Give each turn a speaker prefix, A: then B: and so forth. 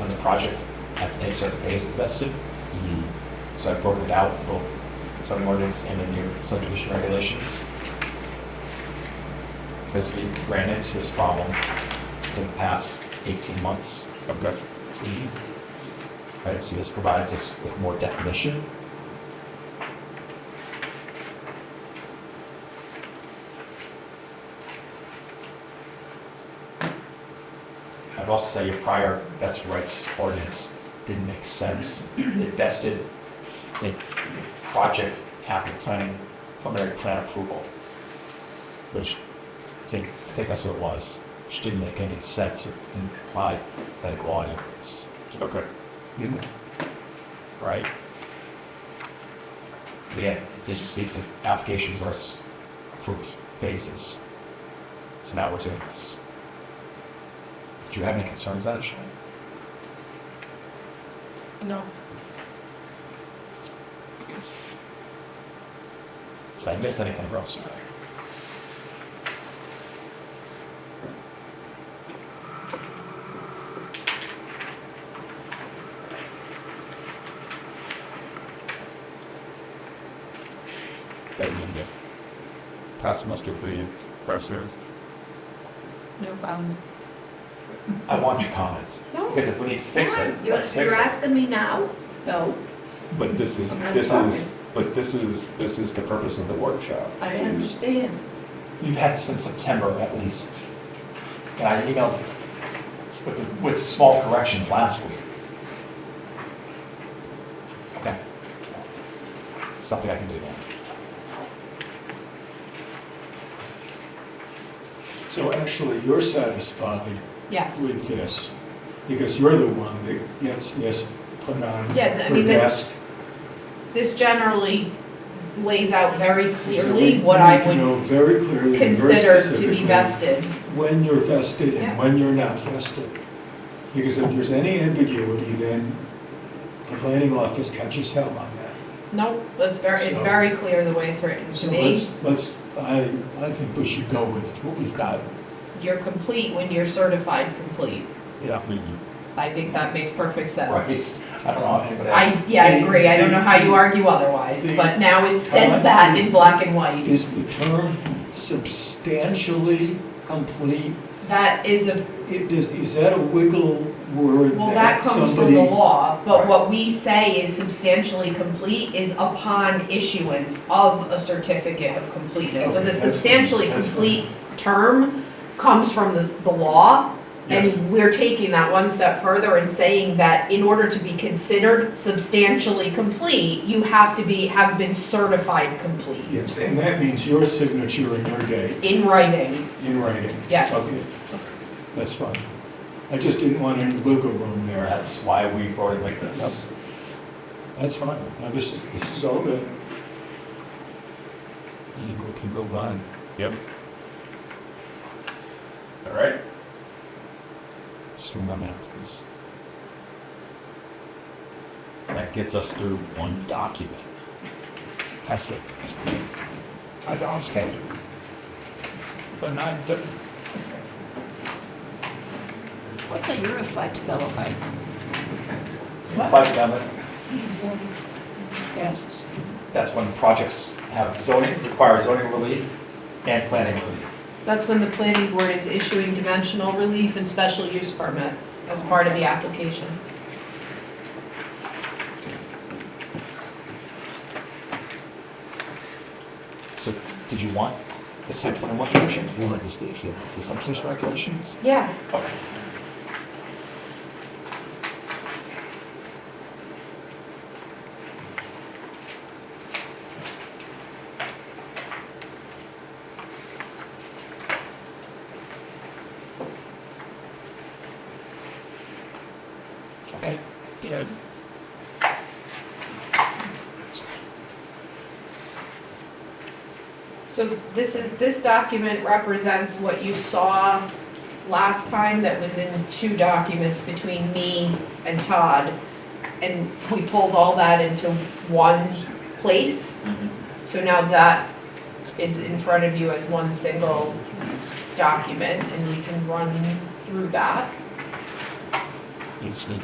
A: on the project have to take certain phases vested.
B: Mhm.
A: So I've broken it out, both zoning ordinance and in your subdivision regulations. Because we ran into this problem in the past 18 months.
B: Okay.
A: Right, so this provides us with more definition. I'd also say your prior vested rights ordinance didn't make sense. It vested in project after planning, preliminary plan approval, which I think, I think that's what it was, which didn't make any sense or didn't apply that law anyways
B: Okay.
A: right? Yeah, it just speak to applications versus approved phases. So now we're doing this. Do you have any concerns on it, Shane?
C: No.
A: Did I miss anything else?
B: That you can get. Pass muster for you, pressures.
C: No problem.
A: I want your comments.
C: No.
A: Because if we need to fix it,
D: You're
A: let's
D: you're
A: fix it.
D: asking me now? No.
B: But this is, this is, but this is, this is the purpose of the workshop.
D: I understand.
A: You've had this since September at least. And I emailed with, the- with small corrections last week. Okay. Something I can do now.
E: So actually, you're satisfied
C: Yes.
E: with this, because you're the one that gets this put on
C: Yeah, I
E: her
C: mean, this-
E: desk.
C: This generally lays out very
E: So
C: clearly
E: we
C: what I
E: need to know
C: would
E: very clearly and very
C: consider to be
E: specifically
C: vested.
E: When you're vested
C: Yeah.
E: and when you're not vested. Because if there's any ambiguity, then the planning office catches hell on that.
C: Nope, it's very, it's
E: So-
C: very clear the way it's written to
E: So
C: me.
E: let's, let's, I, I think we should go with what we've got.
C: You're complete when you're certified complete.
E: Yeah.
C: I think that makes perfect sense.
A: Right. I don't know if anybody
C: I,
A: else.
C: yeah, I agree. I don't know how you argue otherwise, but now it says that in black and white.
E: Is the term substantially complete?
C: That is a
E: It is, is that a wiggle word
C: Well, that
E: that
C: comes from
E: somebody?
C: the law,
A: Right.
C: but what we say is substantially complete is upon issuance of a certificate of completeness. So
E: Okay,
C: the
E: that's-
C: substantially
E: that's fine.
C: complete term comes from the, the law.
E: Yes.
C: And we're taking that one step further and saying that in order to be considered substantially complete, you have to be, have been certified complete
E: Yes, and that means your signature and your date
C: in writing.
E: in writing.
C: Yes.
E: Okay, that's fine. I just didn't want any wiggle room there.
A: That's why we wrote it like this.
E: That's fine. Now, this, is- this is all good. I think we can go on.
B: Yep. All right.
A: Just remember that, please.
B: That gets us through one document.
A: I see.
B: I understand. But not, the-
F: What's a unified developer?
A: By government,
F: Yes.
A: that's when projects have zoning, require zoning relief and planning relief.
C: That's when the planning board is issuing dimensional relief and special use permits as part of the application.
A: So did you want the site plan regulation? You want the state, you want the subdivision regulations?
C: Yeah,
A: Okay. Okay.
B: Uh, yeah.
C: So this is, this document represents what you saw last time that was in two documents between me and Todd. And we pulled all that into one place. So now that is in front of you as one single document and we can run through that.
B: You just need